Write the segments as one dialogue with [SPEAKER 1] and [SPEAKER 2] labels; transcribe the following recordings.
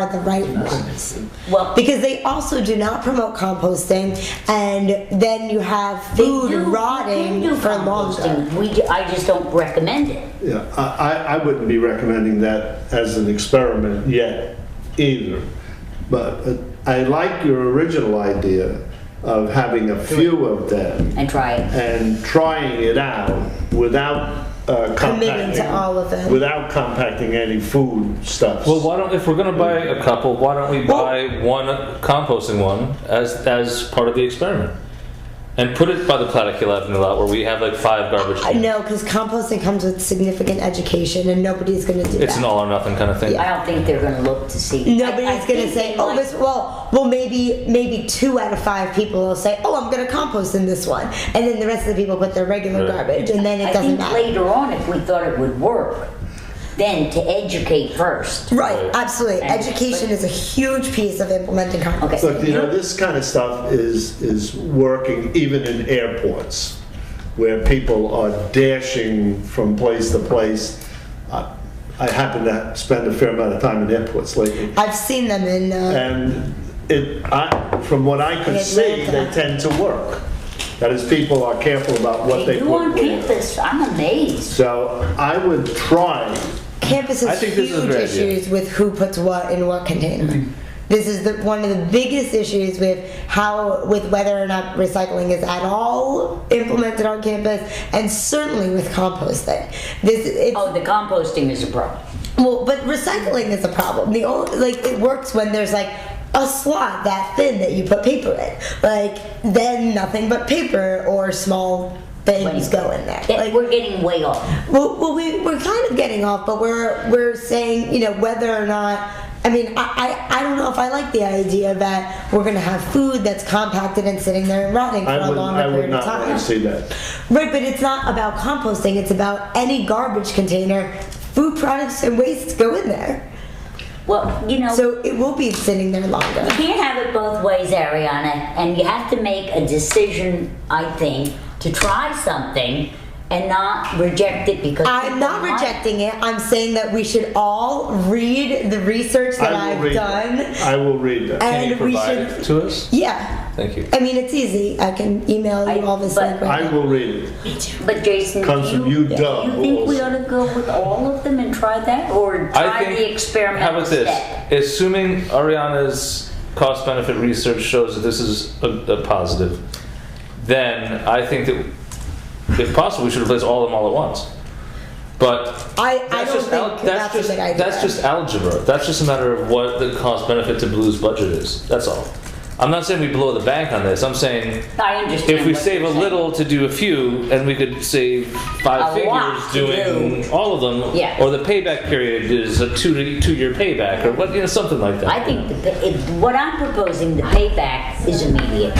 [SPEAKER 1] are the right ones.
[SPEAKER 2] Well-
[SPEAKER 1] because they also do not promote composting, and then you have
[SPEAKER 2] They
[SPEAKER 1] food
[SPEAKER 2] do-
[SPEAKER 1] rotting
[SPEAKER 2] they do
[SPEAKER 1] for longer.
[SPEAKER 2] composting. We, ju- I just don't recommend it.
[SPEAKER 3] Yeah, I, I- I wouldn't be recommending that as an experiment yet either. But uh, I like your original idea of having a few of them
[SPEAKER 2] And try it.
[SPEAKER 3] and trying it out without uh, compacting.
[SPEAKER 1] to all of them.
[SPEAKER 3] Without compacting any food stuffs.
[SPEAKER 4] Well, why don't if we're gonna buy a couple, why don't we
[SPEAKER 1] Well-
[SPEAKER 4] buy one composting one as as part of the experiment, and put it by the Platicule Avenue lot where we have like five garbage
[SPEAKER 1] I
[SPEAKER 4] cans.
[SPEAKER 1] know, because Uh, composting comes with significant education, and nobody's going to do
[SPEAKER 4] It's
[SPEAKER 1] that.
[SPEAKER 4] an all or nothing kind of thing.
[SPEAKER 2] I don't think they're gonna look to see.
[SPEAKER 1] Nobody's
[SPEAKER 2] I- I
[SPEAKER 1] gonna
[SPEAKER 2] think
[SPEAKER 1] say,
[SPEAKER 2] they
[SPEAKER 1] "Oh,
[SPEAKER 2] might-
[SPEAKER 1] this." Well, well, maybe maybe two out of five people will say, "Oh, I'm gonna compost in this one," and then the rest of the people put their regular
[SPEAKER 4] Right.
[SPEAKER 1] garbage, and then it
[SPEAKER 2] I
[SPEAKER 1] doesn't
[SPEAKER 2] think
[SPEAKER 1] matter.
[SPEAKER 2] later on, if we thought it would work, then to educate first.
[SPEAKER 1] Right, absolutely.
[SPEAKER 2] And-
[SPEAKER 1] Education is a huge piece of implementing compost.
[SPEAKER 2] Okay.
[SPEAKER 3] Look, you know, this kind of stuff is, is working even in airports where people are dashing from place to place. I I happen to spend a fair amount of time in airports lately.
[SPEAKER 1] I've seen them in. Uh,
[SPEAKER 3] And it, I, from what I can
[SPEAKER 1] In
[SPEAKER 3] see, they
[SPEAKER 1] Atlanta.
[SPEAKER 3] tend to work. That is, people are careful about what
[SPEAKER 2] They
[SPEAKER 3] they
[SPEAKER 2] do
[SPEAKER 3] put
[SPEAKER 2] on
[SPEAKER 3] where.
[SPEAKER 2] campus, I'm amazed.
[SPEAKER 3] So I would try,
[SPEAKER 1] campus
[SPEAKER 4] I
[SPEAKER 1] has
[SPEAKER 4] think
[SPEAKER 1] huge
[SPEAKER 4] this is a great idea. Mm-hmm.
[SPEAKER 1] issues with who puts what in what container. This is the, one of the biggest issues with how, with whether or not recycling is at all implemented on campus, and certainly with composting. This it's
[SPEAKER 2] Oh, the composting is a problem.
[SPEAKER 1] Well, but recycling is a problem. The only like it works when there's like a slot that thin that you put paper in. Like then nothing but paper or small things
[SPEAKER 2] Right.
[SPEAKER 1] go in there.
[SPEAKER 2] That-
[SPEAKER 1] Like
[SPEAKER 2] We're getting way off.
[SPEAKER 1] well, well we, we're kind of getting off, but we're we're saying you know whether or not. I mean, I, I, I don't know if I like the idea that we're gonna have food that's compacted and sitting there and rotting for
[SPEAKER 3] I
[SPEAKER 1] a
[SPEAKER 3] would,
[SPEAKER 1] longer
[SPEAKER 3] I would
[SPEAKER 1] period
[SPEAKER 3] not
[SPEAKER 1] of time.
[SPEAKER 3] want to see that.
[SPEAKER 1] Right, but it's not about composting. It's about any garbage container. Food products and waste go in there.
[SPEAKER 2] Well, you know,
[SPEAKER 1] So it will be sitting there longer.
[SPEAKER 2] you can't have it both ways, Ariana, and you have to make a decision, I think, to try something and not reject it because.
[SPEAKER 1] I'm
[SPEAKER 2] people
[SPEAKER 1] not
[SPEAKER 2] might-
[SPEAKER 1] rejecting it. I'm saying that we should all read the research that
[SPEAKER 3] I will
[SPEAKER 1] I've
[SPEAKER 3] read
[SPEAKER 1] done.
[SPEAKER 3] that. I will read that.
[SPEAKER 1] And
[SPEAKER 4] Can you
[SPEAKER 1] we
[SPEAKER 4] provide
[SPEAKER 1] should-
[SPEAKER 4] it to us?
[SPEAKER 1] Yeah.
[SPEAKER 4] Thank you.
[SPEAKER 1] I mean, it's easy. I can email you
[SPEAKER 2] I-
[SPEAKER 1] all this.
[SPEAKER 2] but-
[SPEAKER 1] link right
[SPEAKER 3] I
[SPEAKER 1] now.
[SPEAKER 3] will read it.
[SPEAKER 2] But Jason,
[SPEAKER 3] Comes
[SPEAKER 2] do
[SPEAKER 3] from
[SPEAKER 2] you,
[SPEAKER 3] you, Doug.
[SPEAKER 2] you think we ought to go with all of them and try that, or try the experiment?
[SPEAKER 4] How about this?
[SPEAKER 2] step?
[SPEAKER 4] Assuming Ariana's cost benefit research shows that this is a, a positive, then I think that if possible, we should replace all of them all at once. But
[SPEAKER 1] I, I
[SPEAKER 4] that's
[SPEAKER 1] don't
[SPEAKER 4] just
[SPEAKER 1] think that's,
[SPEAKER 4] al- that's
[SPEAKER 1] a
[SPEAKER 4] just
[SPEAKER 1] good idea.
[SPEAKER 4] that's just algebra. That's just a matter of what the cost benefit to Blue's budget is. That's all. I'm not saying we blow the bank on this. I'm saying
[SPEAKER 2] I understand.
[SPEAKER 4] if we
[SPEAKER 2] what
[SPEAKER 4] save a
[SPEAKER 2] you're saying.
[SPEAKER 4] little to do a few, and we could save five
[SPEAKER 2] A lot
[SPEAKER 4] figures
[SPEAKER 2] to
[SPEAKER 4] doing all of them,
[SPEAKER 2] Yeah.
[SPEAKER 4] or the payback period is a two to two year payback, or what, you know, something like that.
[SPEAKER 2] I think the, pay- if, what I'm proposing, the payback is immediate.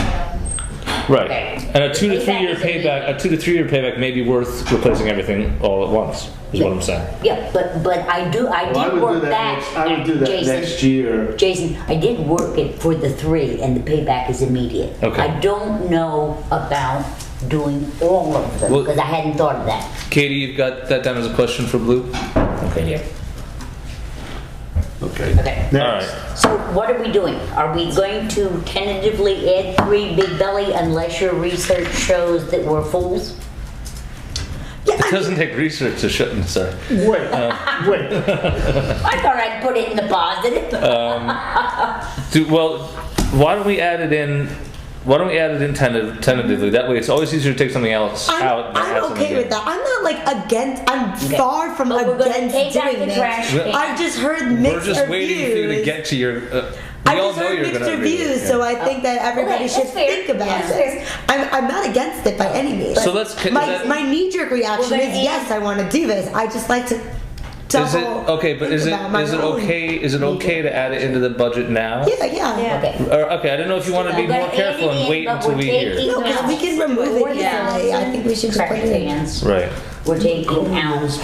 [SPEAKER 4] right.
[SPEAKER 2] okay.
[SPEAKER 4] And a two to three year
[SPEAKER 2] Payback is immediate.
[SPEAKER 4] payback, a two to three year payback may be worth replacing everything all at once. Is what I'm saying.
[SPEAKER 2] Yeah, but but I do I
[SPEAKER 3] Well, I
[SPEAKER 2] did
[SPEAKER 3] would
[SPEAKER 2] work
[SPEAKER 3] do that, next- I would do that
[SPEAKER 2] Jason.
[SPEAKER 3] next year.
[SPEAKER 2] Jason, I did work it for the three, and the payback is immediate.
[SPEAKER 4] Okay.
[SPEAKER 2] I don't know about doing all of them
[SPEAKER 4] Well-
[SPEAKER 2] because I hadn't thought of that.
[SPEAKER 4] Katie, you've got that down as a question for Blue.
[SPEAKER 2] Okay, dear.
[SPEAKER 3] Okay.
[SPEAKER 2] Okay.
[SPEAKER 3] Next.
[SPEAKER 4] All right.
[SPEAKER 2] So what are we doing? Are we going to tentatively add three Big Belly unless your research shows that we're fools?
[SPEAKER 4] It doesn't take research to shut. Sorry.
[SPEAKER 3] Wait, wait.
[SPEAKER 2] I thought I'd put it in the positive.
[SPEAKER 4] Uh, Do, well, why don't we add it in? Why don't we add it in tenta- tentatively? That way, it's always easier to take something else out.
[SPEAKER 1] I'm,
[SPEAKER 4] than add
[SPEAKER 1] I'm
[SPEAKER 4] something
[SPEAKER 1] okay with
[SPEAKER 4] in.
[SPEAKER 1] that. I'm not like against. I'm far from
[SPEAKER 2] But we're gonna
[SPEAKER 1] against
[SPEAKER 2] take out
[SPEAKER 1] doing
[SPEAKER 2] the
[SPEAKER 1] this.
[SPEAKER 2] trash can.
[SPEAKER 1] I've just heard mixed
[SPEAKER 4] We're just
[SPEAKER 1] reviews.
[SPEAKER 4] waiting for you to get to your. Uh, we
[SPEAKER 1] I've
[SPEAKER 4] all
[SPEAKER 1] just
[SPEAKER 4] know
[SPEAKER 1] heard
[SPEAKER 4] you're
[SPEAKER 1] mixed
[SPEAKER 4] going to
[SPEAKER 1] reviews, so I think that everybody
[SPEAKER 2] Okay,
[SPEAKER 1] should
[SPEAKER 2] that's fair.
[SPEAKER 1] think about
[SPEAKER 2] Yeah, that's
[SPEAKER 1] this. I'm, I'm not against it by any means.
[SPEAKER 4] So let's- is
[SPEAKER 1] my,
[SPEAKER 4] that-
[SPEAKER 1] my knee-jerk reaction
[SPEAKER 2] Well, then
[SPEAKER 1] is
[SPEAKER 2] it-
[SPEAKER 1] yes, I want to do this. I just like to.
[SPEAKER 4] Is it
[SPEAKER 1] double
[SPEAKER 4] okay? But
[SPEAKER 1] think
[SPEAKER 4] is it
[SPEAKER 1] about my
[SPEAKER 4] is it
[SPEAKER 1] own-
[SPEAKER 4] okay? Is it okay to add it into the budget now?
[SPEAKER 1] Yeah, yeah.
[SPEAKER 2] Okay.
[SPEAKER 4] Or okay, I don't know if you want to be
[SPEAKER 2] We're gonna
[SPEAKER 4] more careful
[SPEAKER 2] add it
[SPEAKER 4] and
[SPEAKER 2] in,
[SPEAKER 4] wait
[SPEAKER 2] but
[SPEAKER 4] until
[SPEAKER 2] we're
[SPEAKER 4] we
[SPEAKER 2] taking
[SPEAKER 4] hear.
[SPEAKER 1] No, 'cause we can
[SPEAKER 2] out
[SPEAKER 1] remove it
[SPEAKER 2] 4,000
[SPEAKER 1] easily. I think we should just put
[SPEAKER 2] trash
[SPEAKER 1] it in.
[SPEAKER 2] cans.
[SPEAKER 4] Right.
[SPEAKER 2] We're taking out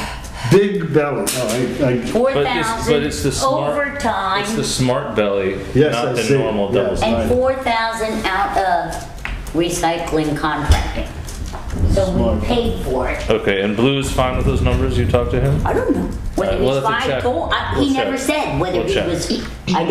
[SPEAKER 3] Big belly. Oh, I, I,
[SPEAKER 2] four
[SPEAKER 4] But it's, but it's the
[SPEAKER 2] thousand
[SPEAKER 4] smart.
[SPEAKER 2] overtime
[SPEAKER 4] It's the smart belly,
[SPEAKER 3] Yes,
[SPEAKER 4] not
[SPEAKER 3] I
[SPEAKER 4] the
[SPEAKER 3] see.
[SPEAKER 4] normal double.
[SPEAKER 3] Yes.
[SPEAKER 2] and four thousand out of recycling contracting. so we paid for it.
[SPEAKER 4] Okay, and Blue's fine with those numbers? You talked to him?
[SPEAKER 2] I don't know. Whether
[SPEAKER 4] Alright,
[SPEAKER 2] it
[SPEAKER 4] we'll
[SPEAKER 2] was
[SPEAKER 4] have to
[SPEAKER 2] five
[SPEAKER 4] check.
[SPEAKER 2] gold, I-
[SPEAKER 4] We'll
[SPEAKER 2] he
[SPEAKER 4] check.
[SPEAKER 2] never said whether
[SPEAKER 4] We'll check.
[SPEAKER 2] it was, I